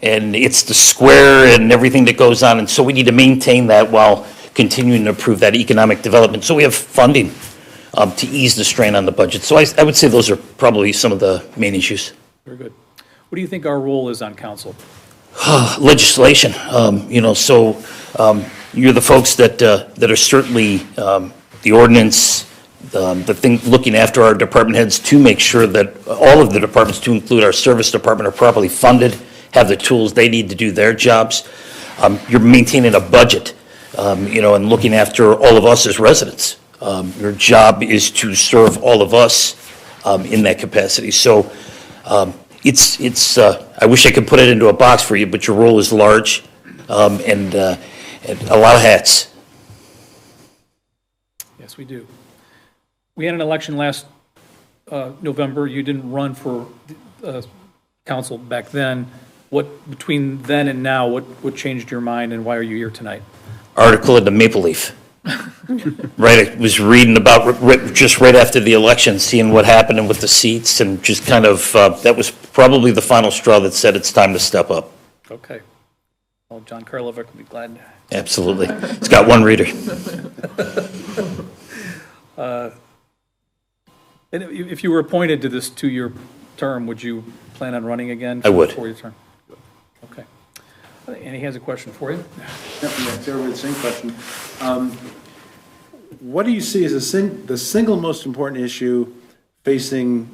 and it's the square and everything that goes on, and so we need to maintain that while continuing to improve that economic development, so we have funding um, to ease the strain on the budget. So I, I would say those are probably some of the main issues. Very good. What do you think our role is on council? legislation, um, you know, so um, you're the folks that, uh, that are certainly um, the ordinance, um, the thing, looking after our department heads to make sure that all of the departments, to include our service department, are properly funded, have the tools they need to do their jobs. Um, You're maintaining a budget, um, you know, and looking after all of us as residents. Um, Your job is to serve all of us um, in that capacity. So um, It's, it's, uh, I wish I could put it into a box for you, but your role is large um, and uh, and a lot of hats. Yes, we do. We had an election last uh, November. You didn't run for uh, council back then. What, between then and now, what, what changed your mind and why are you here tonight? Article in the Maple Leaf. Right, I was reading about, r- r- just right after the election, seeing what happened and with the seats and just kind of, uh, that was probably the final straw that said it's time to step up. Okay. Well, John Karlovic would be glad. Absolutely. It's got one reader. And if if you were appointed to this two-year term, would you plan on running again? I would. For your term? Okay. And he has a question for you. Yeah, Sarah with the same question. Um, What do you see as the sin, the single most important issue facing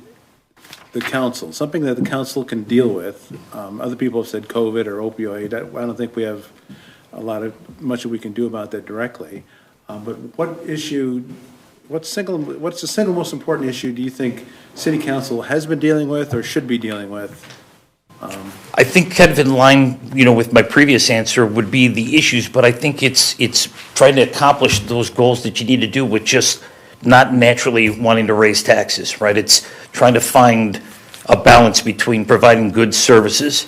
the council? Something that the council can deal with? Um, Other people have said COVID or opioid. I I don't think we have a lot of, much that we can do about that directly. Um, But what issue, what single, what's the single most important issue do you think city council has been dealing with or should be dealing with? I think kind of in line, you know, with my previous answer would be the issues, but I think it's, it's trying to accomplish those goals that you need to do with just not naturally wanting to raise taxes, right? It's trying to find a balance between providing good services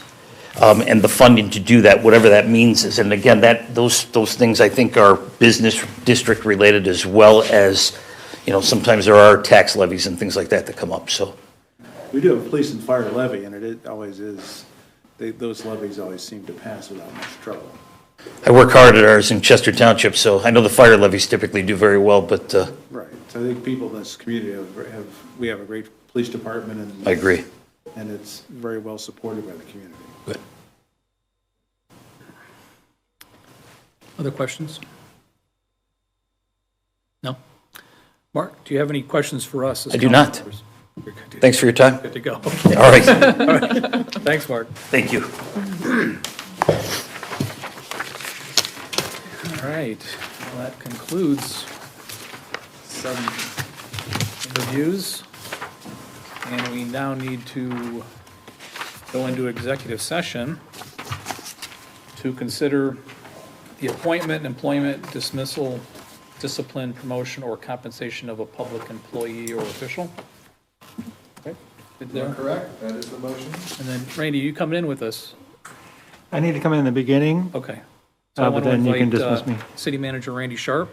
um, and the funding to do that, whatever that means is. And again, that, those, those things I think are business district related as well as, you know, sometimes there are tax levies and things like that that come up, so. We do have a police and fire levy, and it is- always is, they- those levies always seem to pass without much trouble. I work hard at ours in Chester Township, so I know the fire levies typically do very well, but uh, Right, so I think people in this community have, have, we have a great police department and. I agree. And it's very well supported by the community. Other questions? No? Mark, do you have any questions for us? as I do council not. members? You're good to- Thanks for your time. Good to go. All right, Thanks, Mark. thank you. All right, well, that concludes seven interviews. And we now need to go into executive session to consider the appointment, employment, dismissal, discipline, promotion, or compensation of a public employee or official. Okay, good there. Correct, that is the motion. And then Randy, you coming in with us? I need to come in the beginning. Okay. So I Uh, but want to then you can invite, uh, dismiss me. City Manager Randy Sharp.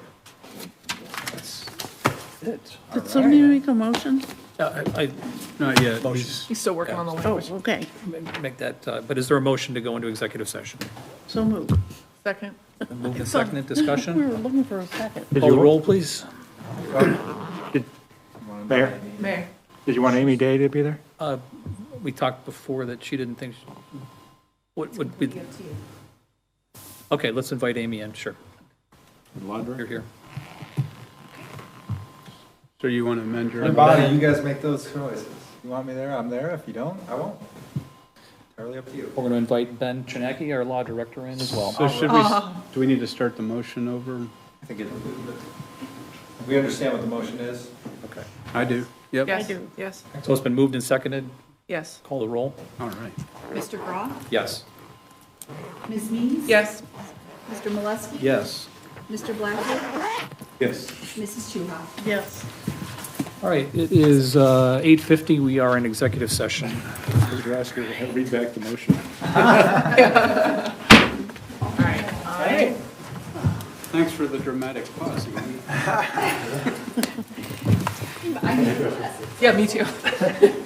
That's it. Did somebody make a motion? Uh, I I Not yet. Motion. He's still working on the Oh, language. okay, ma- make that, uh, but is there a motion to go into executive session? so moved. Second. Moved and seconded, We discussion? were looking for a second. Did Call the you- roll, please. Mayor, Mayor. did you want Amy Day to be there? We talked before that she didn't think, she- what would be? Okay, let's invite Amy in, sure. You're here. So you want to amend your? Bonnie, you guys make those choices. You want me there, I'm there. If you don't, I won't. Entirely up to you. We're going to invite Ben Chinaki, our law director, in as well. So should we, do we need to start the motion over? I think it. We understand what the motion is. I do. Yep. Yes, do. yes, So it's been moved and seconded, yes. call the roll? All right. Mr. Groff, Yes. Ms. Mees? Yes. Mr. Molesky? Yes. Mr. Blackwell? Yes. Mrs. Chuha? Yes. All right, it is uh, 8:50, we are in executive session. Mr. Oskar, read back the motion. All right. Thanks for the dramatic pause. Amy. Yeah, me too.